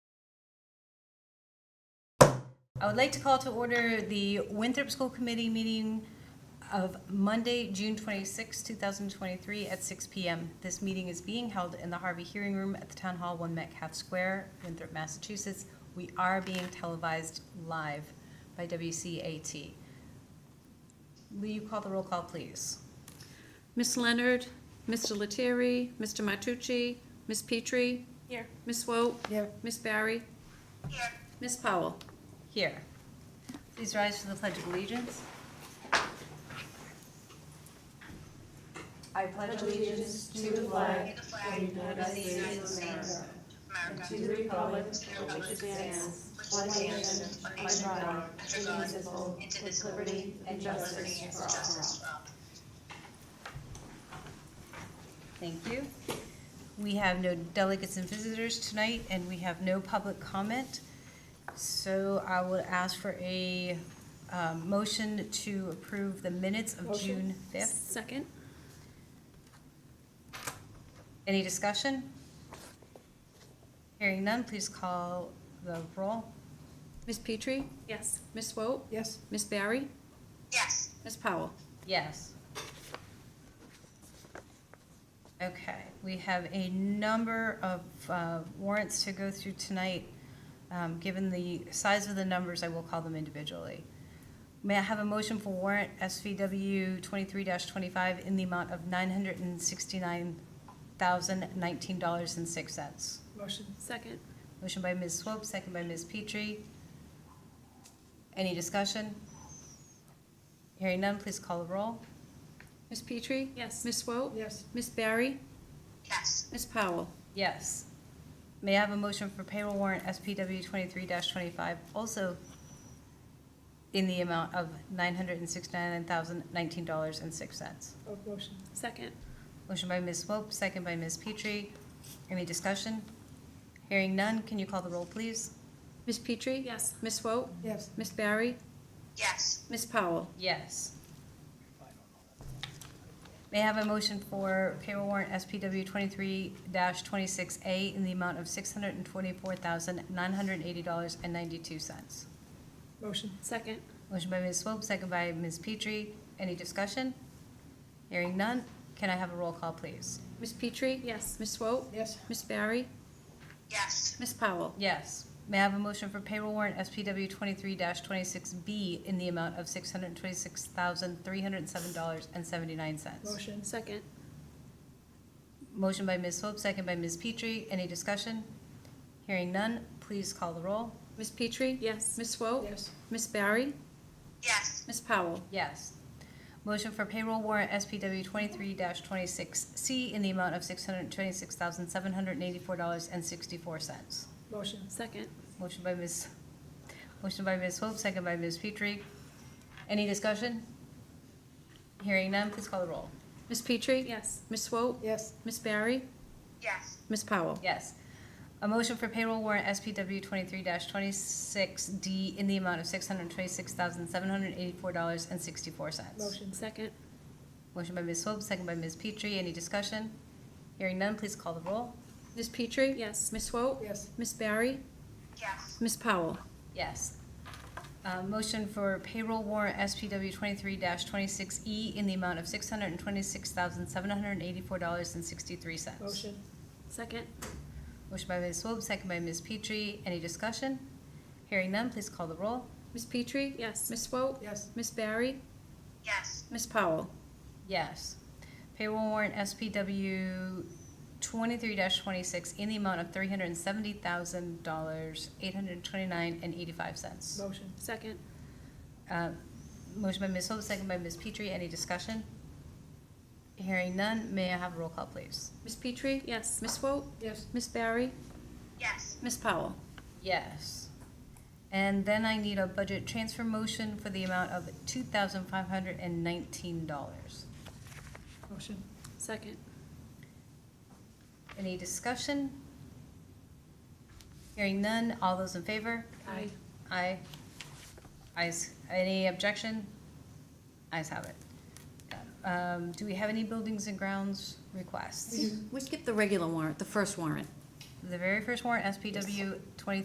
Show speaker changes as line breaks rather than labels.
I would like to call to order the Winthrop School Committee meeting of Monday, June 26, 2023, at 6 PM. This meeting is being held in the Harvey Hearing Room at the Town Hall, 1 Metcalf Square, Winthrop, Massachusetts. We are being televised live by WCAT. Will you call the roll call, please?
Miss Leonard, Mr. Lettieri, Mr. Matucci, Miss Petrie. Here. Miss Swope. Here. Miss Barry. Here. Miss Powell.
Here. Please rise for the Pledge of Allegiance. I pledge allegiance to the flag of the United States Thank you. We have no delegates and visitors tonight, and we have no public comment. So I will ask for a um, motion to approve the minutes of June 5th.
Second.
Any discussion? Hearing none, please call the roll.
Miss Petrie. Yes. Miss Swope.
Yes.
Miss Barry.
Yes,
Miss Powell.
Yes. Okay, we have a number of uh, warrants to go through tonight. Um, Given the size of the numbers, I will call them individually. May I have a motion for warrant SVW 23-25 in the amount of $969,019.06?
Motion.
Second.
Motion by Ms. Swope, second by Ms. Petrie. Any discussion? Hearing none, please call the roll.
Miss Petrie. Yes. Miss Swope.
Yes.
Miss Barry.
yes,
Miss Powell.
Yes. May I have a motion for payroll warrant SPW twenty-three twenty-five, also in the amount of nine hundred and sixty-nine thousand nineteen dollars and six cents?
Oh, motion.
Second.
Motion by Ms. Swope, second by Ms. Petrie. Any discussion? Hearing none, can you call the roll, please?
Miss Petrie. Yes. Miss Swope.
Yes.
Miss Barry.
yes,
Miss Powell.
Yes. May I have a motion for payroll warrant SPW twenty-three twenty-six A in the amount of six hundred and twenty-four thousand nine hundred and eighty dollars and ninety-two cents?
Motion.
Second.
Motion by Ms. Swope, second by Ms. Petrie. Any discussion? Hearing none, can I have a roll call, please?
Miss Petrie. Yes. Miss Swope.
Yes.
Miss Barry.
yes,
Miss Powell.
Yes. May I have a motion for payroll warrant SPW twenty-three twenty-six B in the amount of six hundred and twenty-six thousand, three hundred and seven dollars and seventy-nine cents?
Motion.
Second.
Motion by Ms. Swope, second by Ms. Petrie. Any discussion? Hearing none, please call the roll.
Miss Petrie. Yes. Miss Swope.
Yes.
Miss Barry.
yes,
Miss Powell.
Yes. Motion for payroll warrant SPW twenty-three twenty-six C in the amount of six hundred and twenty-six thousand, seven hundred and eighty-four dollars and sixty-four cents?
Motion.
Second.
Motion by Ms., motion by Ms. Swope, second by Ms. Petrie. Any discussion? Hearing none, please call the roll.
Miss Petrie. Yes. Miss Swope.
Yes.
Miss Barry.
yes,
Miss Powell.
Yes. A motion for payroll warrant SPW twenty-three twenty-six D in the amount of six hundred and twenty-six thousand, seven hundred and eighty-four dollars and sixty-four cents.
Motion.
Second.
Motion by Ms. Swope, second by Ms. Petrie. Any discussion? Hearing none, please call the roll.
Miss Petrie? Yes. Miss Swope?
Yes.
Miss Barry?
yes,
Miss Powell?
Yes. Uh, Motion for payroll warrant SPW twenty-three twenty-six E in the amount of six hundred and twenty-six thousand, seven hundred and eighty-four dollars and sixty-three cents.
Motion.
Second.
Motion by Ms. Swope, second by Ms. Petrie. Any discussion? Hearing none, please call the roll.
Miss Petrie? Yes. Miss Swope?
Yes.
Miss Barry?
yes,
Miss Powell?
Yes. Payroll warrant SPW twenty-three twenty-six in the amount of three hundred and seventy thousand dollars, eight hundred and twenty-nine and eighty-five cents.
Motion.
Second.
Uh, Motion by Ms. Hope, second by Ms. Petrie. Any discussion? Hearing none, may I have a roll call, please?
Miss Petrie? Yes. Miss Swope?
Yes.
Miss Barry?
yes,
Miss Powell?
Yes. And then I need a budget transfer motion for the amount of two thousand five hundred and nineteen dollars.
Motion.
Second.
Any discussion? Hearing none, all those in favor?
Aye.
Aye. Ayes, any objection? Ayes have it. Um, Do we have any buildings and grounds requests?
We skipped the regular warrant, the first warrant.
The very first warrant, SPW